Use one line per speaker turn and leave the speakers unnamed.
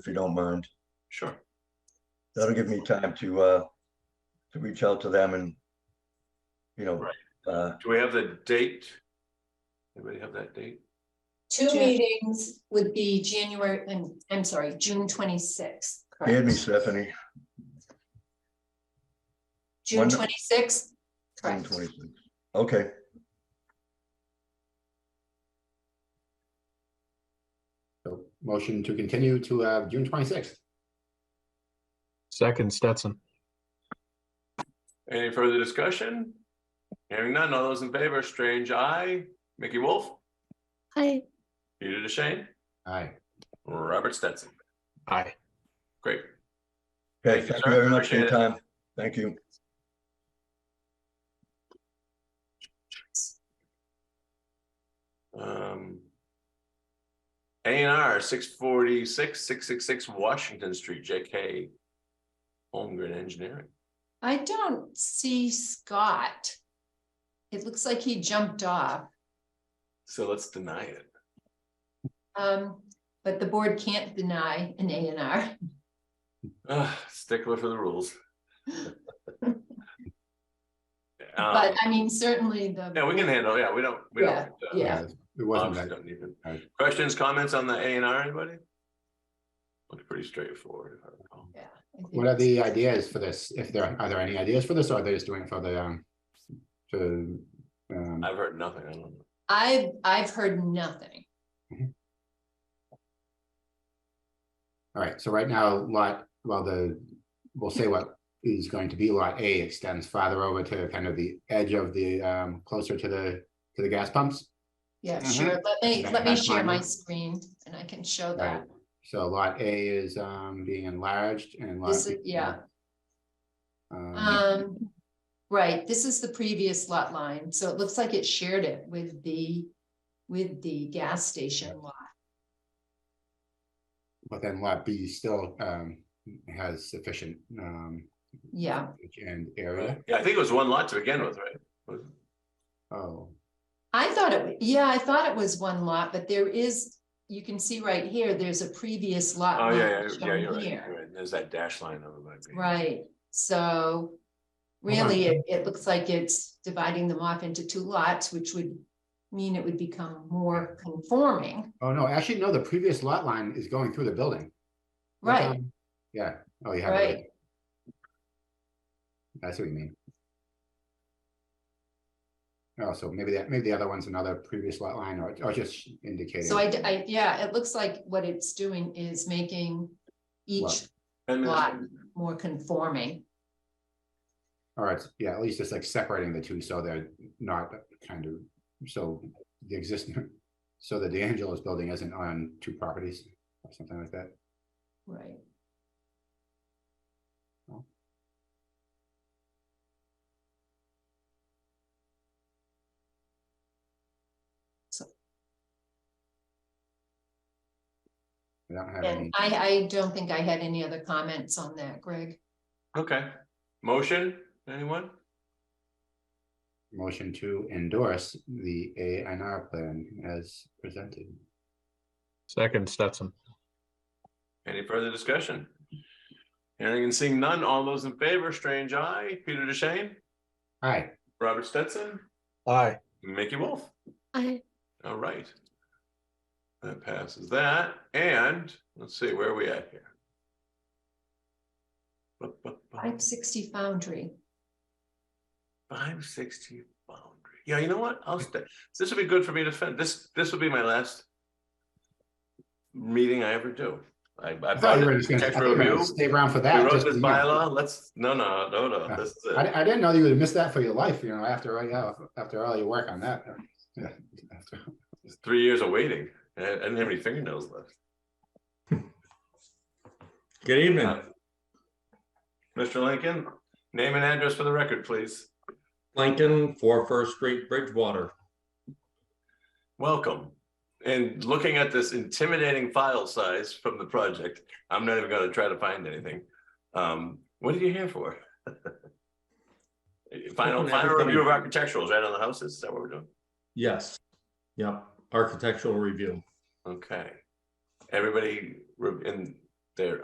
if you don't mind.
Sure.
That'll give me time to, uh, to reach out to them and, you know,
Right.
uh,
Do we have the date? Anybody have that date?
Two
Jan-
meetings would be January, I'm, I'm sorry, June twenty-sixth.
hand me Stephanie,
June
one-
twenty-sixth?
June
Correct.
twenty-sixth. Okay,
So motion to continue to uh, June twenty-sixth.
Second Stetson.
Any further discussion? Hearing none, all those in favor, Strange Eye, Mickey Wolf,
Hi.
Peter DeShane,
Aye.
Robert Stetson.
Aye.
Great.
okay,
Thank you,
thank
sir.
you very much for your
Appreciate
time. Thank you.
Um. A and R, six forty-six, six six six Washington Street, JK Holmgren Engineering.
I don't see Scott. It looks like he jumped off,
So let's deny it.
um, but the board can't deny an A and R.
Ugh, stickler for the rules.
But
Um,
I mean, certainly the,
Yeah, we can handle, yeah, we don't, we don't. uh,
Yeah.
It wasn't
obviously
that.
don't need them.
Right.
Questions, comments on the A and R, anybody? Looks pretty straightforward. if I recall.
yeah. I think
What are the ideas for this? If there, are there any ideas for this or are they just doing it for the, um, to, um,
I've heard nothing, I don't know.
I've, I've heard nothing.
all right, so right now lot, well, the, we'll say what is going to be lot A extends farther over to kind of the edge of the, um, closer to the, to the gas pumps.
Yeah,
Mhm.
sure. Let me,
Okay,
let me
that's
share
fine.
my screen and I can show
Right,
that.
so lot A is, um, being enlarged and lot.
This
B-
is- yeah.
Um,
Um, right, this is the previous lot line, so it looks like it shared it with the, with the gas station lot.
but then lot B still, um, has sufficient, um,
Yeah,
and area.
Yeah, I think it was one lot to begin with, right? Was-
Oh,
I thought it, yeah, I thought it was one lot, but there is, you can see right here, there's a previous lot.
Oh,
line
yeah, yeah, yeah,
shown
you're right,
here.
you're right. There's that dash line over by. me.
Right, so
Hold on.
really, it, it looks like it's dividing them off into two lots, which would mean it would become more conforming,
oh no, actually, no, the previous lot line is going through the building. Look
right?
on- Yeah, oh, you have it. right.
Right.
That's what you mean. Oh, so maybe that, maybe the other one's another previous lot line or, or just indicating.
So I, d- I- yeah, it looks like what it's doing is making each
Lot.
Ten minutes.
Lot. more conforming.
All right, yeah, at least it's like separating the two, so they're not kind of, so the existing, so the D'Angelo's building isn't on two properties or something like that.
Right.
I don't have any,
And I, I don't think I had any other comments on that, Greg.
Okay, motion, anyone?
motion to endorse the A and R plan as presented.
Second Stetson.
Any further discussion? Hearing and seeing none, all those in favor, Strange Eye, Peter DeShane,
Hi,
Robert Stetson,
Aye.
Mickey Wolf.
Hi.
All right. That passes that, and let's see, where are we at here?
Five sixty Foundry.
Five sixty boundary. Yeah, you know what? I'll stay. This would be good for me to finish. This, this will be my last meeting I ever do. I, I
I thought
bought
you were
it.
just gonna- I
Text
thought you were
review.
gonna stay around for
We
that.
wrote
just
this
to, you know,
bylaw. Let's, no, no, no, no, this is it.
I, I didn't know you would miss that for your life, you know, after, all- yeah, after all your work on that. Yeah, after-
It's Three years of waiting. I I didn't have any fingernails left.
Good evening,
Mr. Uh, Lincoln, name and address for the record, please.
Lincoln, four First Street, Bridgewater.
Welcome. And looking at this intimidating file size from the project, I'm not even gonna try to find anything. Um, what are you here for? Final, final
Open everything.
review of architecturals, right on the houses, is that what we're doing?
Yes. Yep, architectural review.
Okay. Everybody re- in